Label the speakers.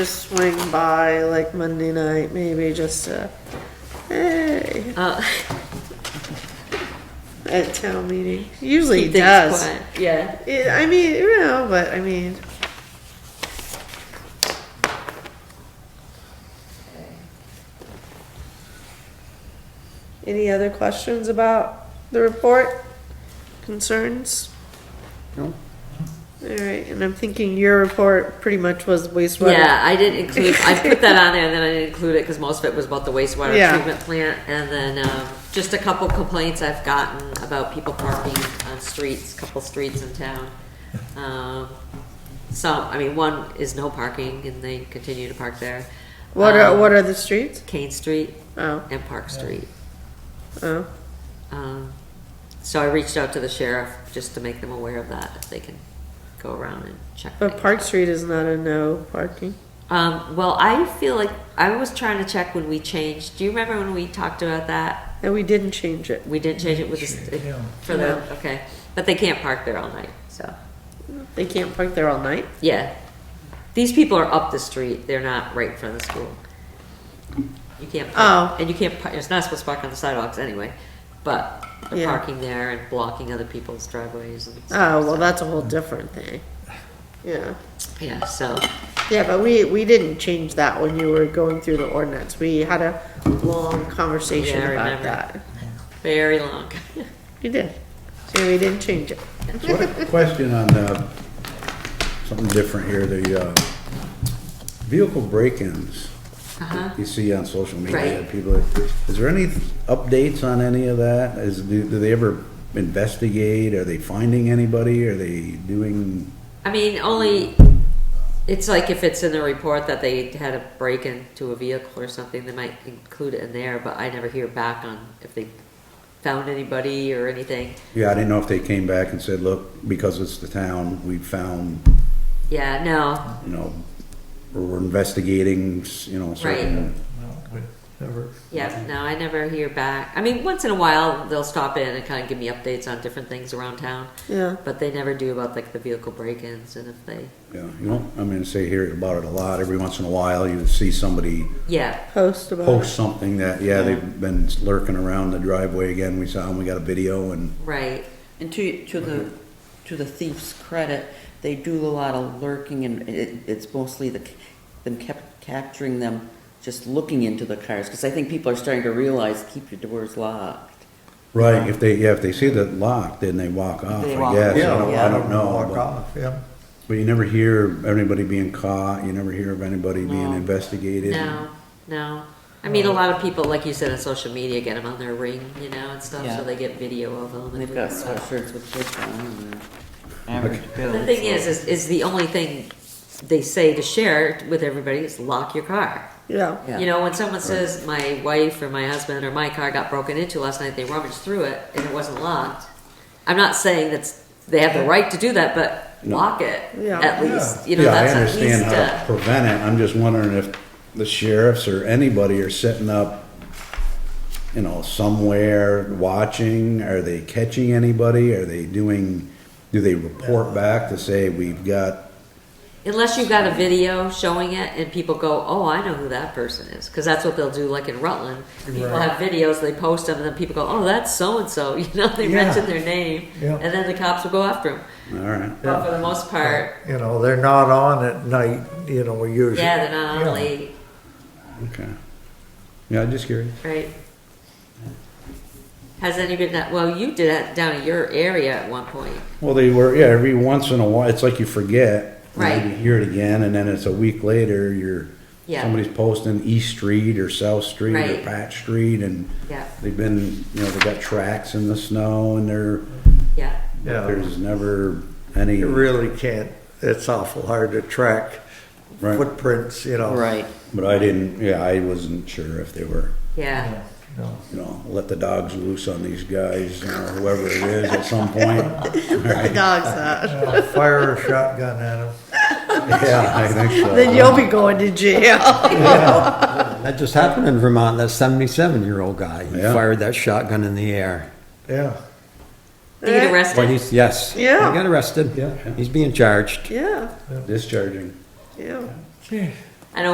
Speaker 1: Just swing by like Monday night, maybe just to, hey,
Speaker 2: Uh,
Speaker 1: at town meeting. Usually he
Speaker 2: keep things
Speaker 1: does.
Speaker 2: quiet. Yeah.
Speaker 1: It- I mean, you know, but I mean, any other questions about the report? Concerns?
Speaker 3: No.
Speaker 1: All right, and I'm thinking your report pretty much was wastewater.
Speaker 2: Yeah, I didn't include, I put that on there and then I didn't include it because most of it was about the wastewater
Speaker 1: Yeah.
Speaker 2: treatment plant. And then, um, just a couple complaints I've gotten about people parking on streets, couple streets in town. Um, some, I mean, one is no parking and they continue to park there.
Speaker 1: What are
Speaker 2: Um,
Speaker 1: what are the streets?
Speaker 2: Kane Street
Speaker 1: Oh,
Speaker 2: and Park Street.
Speaker 1: oh,
Speaker 2: Um, so I reached out to the sheriff just to make them aware of that, if they can go around and check.
Speaker 1: but
Speaker 2: things.
Speaker 1: Park Street is not a no parking.
Speaker 2: Um, well, I feel like I was trying to check when we changed. Do you remember when we talked about that?
Speaker 1: And we didn't change it.
Speaker 2: We didn't change it with the,
Speaker 4: Yeah.
Speaker 2: for the, okay. But they can't park there all night, so,
Speaker 1: They can't park there all night.
Speaker 2: yeah. These people are up the street, they're not right in front of the school. You can't,
Speaker 1: Oh.
Speaker 2: park- and you can't, par- it's not supposed to park on the sidewalks anyway, but they're
Speaker 1: Yeah.
Speaker 2: parking there and blocking other people's driveways and stuff.
Speaker 1: Oh, well, that's a whole different thing. Yeah.
Speaker 2: Yeah, so,
Speaker 1: Yeah, but we, we didn't change that when you were going through the ordinance. We had a long conversation
Speaker 2: Yeah, I
Speaker 1: about
Speaker 2: remember.
Speaker 1: that.
Speaker 2: very long.
Speaker 1: You did. So we didn't change it.
Speaker 3: What- Question on, uh, something different here, the, uh, vehicle break-ins
Speaker 2: Uh-huh.
Speaker 3: you see on social media,
Speaker 2: Right.
Speaker 3: people, is there any updates on any of that? Is, do, do they ever investigate? Are they finding anybody? Are they doing,
Speaker 2: I mean, only, it's like if it's in the report that they had a break into a vehicle or something, they might include it in there, but I never hear back on if they found anybody or anything.
Speaker 3: yeah, I didn't know if they came back and said, look, because it's the town, we found,
Speaker 2: Yeah, no,
Speaker 3: you know, or we're investigating, you know, certain.
Speaker 4: No, we never.
Speaker 2: yeah, no, I never hear back. I mean, once in a while, they'll stop in and kind of give me updates on different things around town,
Speaker 1: Yeah.
Speaker 2: but they never do about like the vehicle break-ins and if they,
Speaker 3: Yeah, you know, I mean, say, hear about it a lot. Every once in a while, you see somebody
Speaker 2: yeah,
Speaker 1: Post about it.
Speaker 3: post something that, yeah, they've been lurking around the driveway again, we saw them, we got a video and,
Speaker 2: right,
Speaker 5: And to, to the, to the thief's credit, they do a lot of lurking and it, it's mostly the, them kept capturing them just looking into the cars, because I think people are starting to realize, keep your doors locked.
Speaker 3: right, if they, yeah, if they see the lock, then they walk off,
Speaker 5: They
Speaker 3: I
Speaker 5: walk
Speaker 3: guess, I
Speaker 5: off,
Speaker 3: don't,
Speaker 5: yeah.
Speaker 3: I don't know.
Speaker 4: Walk
Speaker 3: but-
Speaker 4: off, yeah.
Speaker 3: But you never hear anybody being caught, you never hear of anybody being
Speaker 5: No.
Speaker 3: investigated.
Speaker 2: no, no. I mean, a lot of people, like you said, on social media, get them on their ring, you know, and stuff,
Speaker 5: Yeah.
Speaker 2: so they get video of them.
Speaker 5: And they've got sweatshirts with this on and average bill.
Speaker 2: The thing is, is, is the only thing they say to share with everybody is lock your car.
Speaker 1: Yeah.
Speaker 5: Yeah.
Speaker 2: You know, when someone says my wife or my husband or my car got broken into last night, they rummaged through it and it wasn't locked. I'm not saying that's they have the right to do that, but
Speaker 3: No.
Speaker 2: lock it
Speaker 1: Yeah.
Speaker 2: at least. You know,
Speaker 3: Yeah, I
Speaker 2: that's at
Speaker 3: understand
Speaker 2: least.
Speaker 3: how to
Speaker 2: Uh,
Speaker 3: prevent it, I'm just wondering if the sheriffs or anybody are setting up, you know, somewhere, watching, are they catching anybody, are they doing, do they report back to say, we've got
Speaker 2: unless you've got a video showing it and people go, "Oh, I know who that person is," because that's what they'll do. Like in Rutland, people
Speaker 4: Right.
Speaker 2: have videos, they post them, and then people go, "Oh, that's so and so." You know, they
Speaker 3: Yeah.
Speaker 2: mention their name,
Speaker 4: Yeah.
Speaker 2: and then the cops will go after them.
Speaker 3: All right.
Speaker 2: But for the most part,
Speaker 4: You know, they're not on at night, you know, we usually.
Speaker 2: yeah, they're not
Speaker 4: Yeah.
Speaker 2: on late,
Speaker 3: Okay. Yeah, just curious.
Speaker 2: right? Has anybody not, well, you did that down in your area at one point.
Speaker 3: Well, they were, yeah, every once in a while, it's like you forget. and then
Speaker 2: Right.
Speaker 3: You hear it again, and then it's a week later, you're,
Speaker 2: Yeah.
Speaker 3: somebody's posting East Street or South Street or
Speaker 2: Right.
Speaker 3: Patch Street, and
Speaker 2: Yeah.
Speaker 3: they've been, you know, they got tracks in the snow, and they're,
Speaker 2: Yeah,
Speaker 4: Yeah,
Speaker 3: there's never any.
Speaker 4: you really can't, it's awful hard to track
Speaker 3: Right.
Speaker 4: footprints, you know.
Speaker 5: Right,
Speaker 3: But I didn't, yeah, I wasn't sure if they were,
Speaker 2: yeah.
Speaker 4: No.
Speaker 3: you know, let the dogs loose on these guys, you know, whoever it is at some point.
Speaker 1: The dog's out.
Speaker 4: Yeah, Fire a shotgun at them.
Speaker 3: Yeah, I think so.
Speaker 1: Then you'll be going to jail.
Speaker 6: That just happened in Vermont. That 77 year old guy, he
Speaker 3: Yeah.
Speaker 6: fired that shotgun in the air.
Speaker 4: Yeah,
Speaker 2: They get
Speaker 6: But
Speaker 2: arrested.
Speaker 6: he's, yes.
Speaker 1: Yeah.
Speaker 6: He got arrested.
Speaker 4: Yeah.
Speaker 6: He's being charged.
Speaker 1: Yeah,
Speaker 3: Discharging.
Speaker 1: yeah.
Speaker 4: Gee,